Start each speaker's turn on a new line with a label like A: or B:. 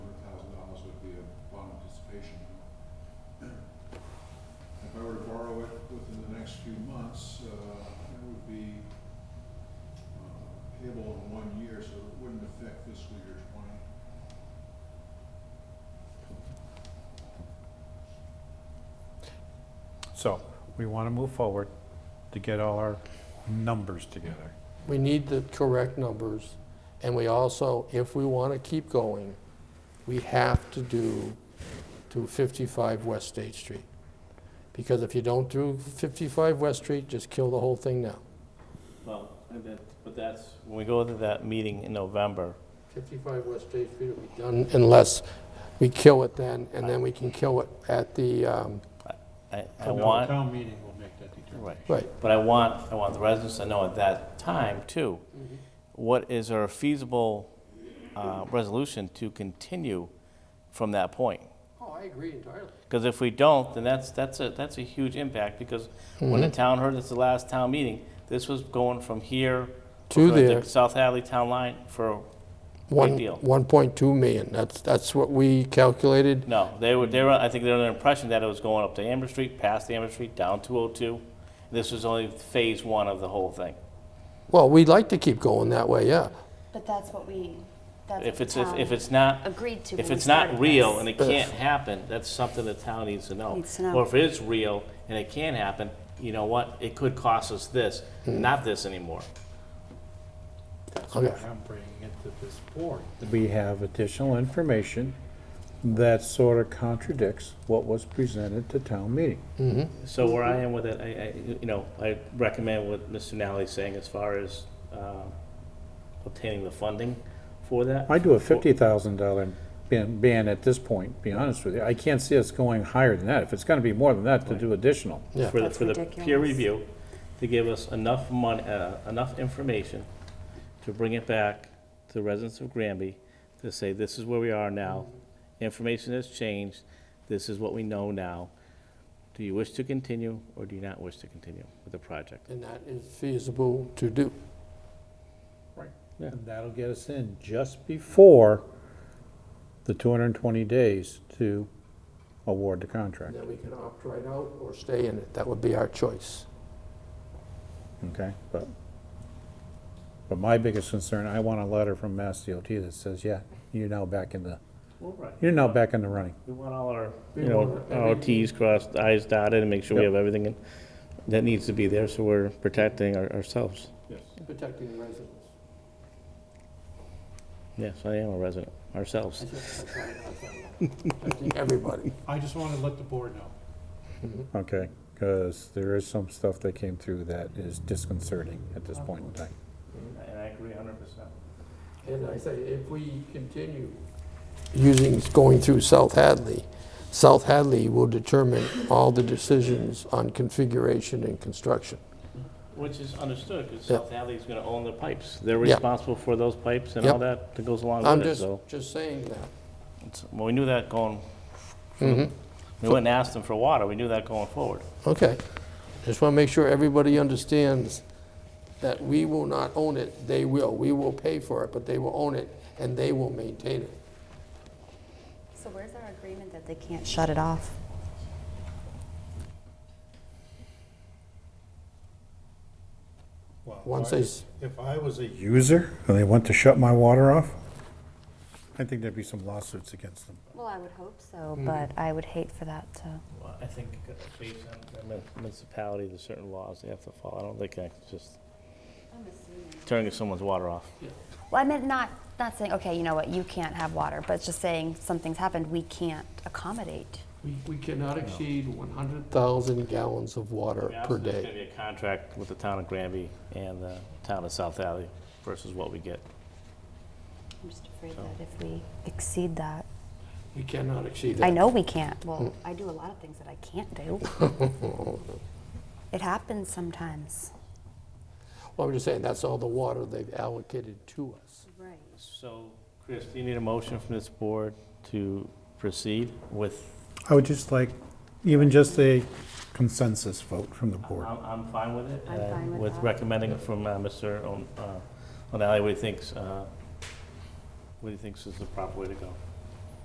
A: next few months, uh, that would be uh, payable in one year, so it wouldn't affect fiscal year twenty.
B: So we want to move forward to get all our numbers together.
C: We need the correct numbers, and we also, if we want to keep going, we have to do to 55 West State Street. Because if you don't do 55 West Street, just kill the whole thing now.
D: Well, and that- but that's, when we go to that meeting in November,
C: 55 West State Street will be done unless we kill it then, and then we can kill it at the, um,
D: I, I
B: Town-
D: want,
B: Town meeting will make that determination.
D: Right.
C: right,
D: but I want, I want the residents to know at that time too, what is our feasible uh, resolution to continue from that point?
C: Oh, I agree entirely.
D: Because if we don't, then that's, that's a, that's a huge impact, because when the
C: Mm-hmm.
D: town heard it's the last town meeting, this was going from here.
C: To
D: from the
C: there.
D: South Hadley Town Line for,
C: One,
D: deal.
C: 1.2 million, that's, that's what we calculated.
D: no, they were, they were, I think they were under the impression that it was going up to Amber Street, past Amber Street, down 202. This was only phase one of the whole thing.
C: Well, we'd like to keep going that way, yeah.
E: But that's what we, that's
D: If
E: what
D: it's,
E: the
D: if
E: town
D: if it's not,
E: agreed to when
D: if
E: we
D: it's not
E: started
D: real
E: this.
D: and it can't happen, that's something the town needs to know.
E: Needs to know.
D: Or if it is real and it can happen, you know what, it could cost us this, not this anymore.
B: That's why I'm bringing it to this board. Oh, We have additional information that sort of contradicts what was presented to town meeting.
D: So where I am with it, I, I, you know, I recommend what Mr. Nally's saying as far as, um, obtaining the funding for that.
B: I do a fifty thousand dollar ban, ban at this point, be honest with you. I can't see us going higher than that. If it's gonna be more than that, to do additional.
C: Yeah.
D: For the,
E: That's
D: for the peer
E: ridiculous.
D: review, to give us enough mon, uh, enough information to bring it back to the residents of Granby, to say, this is where we are now. Information has changed, this is what we know now. Do you wish to continue, or do you not wish to continue with the project?
C: And that is feasible to do.
B: And that'll get us in just before the two hundred and twenty days to award the contract,
C: Then we can opt right out or stay in it. That would be our choice.
B: okay? But, but my biggest concern, I want a letter from Mass DOT that says, yeah, you're now back in the,
D: Well, right.
B: you're now back in the running.
D: We want all our,
C: We
D: you know,
C: want
D: our
C: everything.
D: Ts crossed, Is dotted, and make sure we
B: Yep.
D: have everything in- that needs to be there, so we're protecting our- ourselves.
B: Yes.
C: Protecting the residents.
D: Yes, I am a resident, ourselves.
C: Protecting everybody.
F: I just want to let the board know.
G: Mm-hmm.
B: Okay, because there is some stuff that came through that is disconcerting at this point in time.
D: And I agree hundred percent.
C: And I say, if we continue using, going through South Hadley, South Hadley will determine all the decisions on configuration and construction.
D: Which is understood, because
C: Yeah.
D: South Hadley's gonna own the pipes. They're
C: Yeah.
D: responsible for those pipes and
C: Yeah.
D: all that that goes along
C: I'm
D: with it,
C: just,
D: so.
C: just saying that.
D: it's- Well, we knew that going,
C: Mhm.
D: we went and asked them for water, we knew that going forward.
C: Okay. Just want to make sure everybody understands that we will not own it, they will. We will pay for it, but they will own it, and they will maintain it.
E: So where's our agreement that they can't shut it off?
F: Well,
C: Once
F: I-
C: they, s-
F: If I was a,
B: User, and they want to shut my water off? I think there'd be some lawsuits against them.
E: Well, I would hope so, but I would hate for that to.
D: Well, I think based on municipality, there's certain laws they have to follow. I don't think I can just turn someone's water off.
E: Well, I meant not, not saying, okay, you know what, you can't have water, but just saying something's happened, we can't accommodate.
C: we we cannot exceed 100,000 gallons of water per
D: There's
C: day.
D: gonna be a contract with the town of Granby and the town of South Hadley versus what we get.
E: I'm just afraid that if we exceed that,
C: We cannot exceed that.
E: I know we can't. Well, I do a lot of things that I can't do. It happens sometimes.
C: Well, I'm just saying, that's all the water they've allocated to us.
E: Right.
D: So, Chris, do you need a motion from this board to proceed with
G: I would just like, even just a consensus vote from the board.
D: I'm, I'm fine with it.
E: I'm
D: uh,
E: fine with that.
D: recommending from uh, Mr. On- uh, O'Malley, what he thinks, uh, what he thinks is the proper way to go.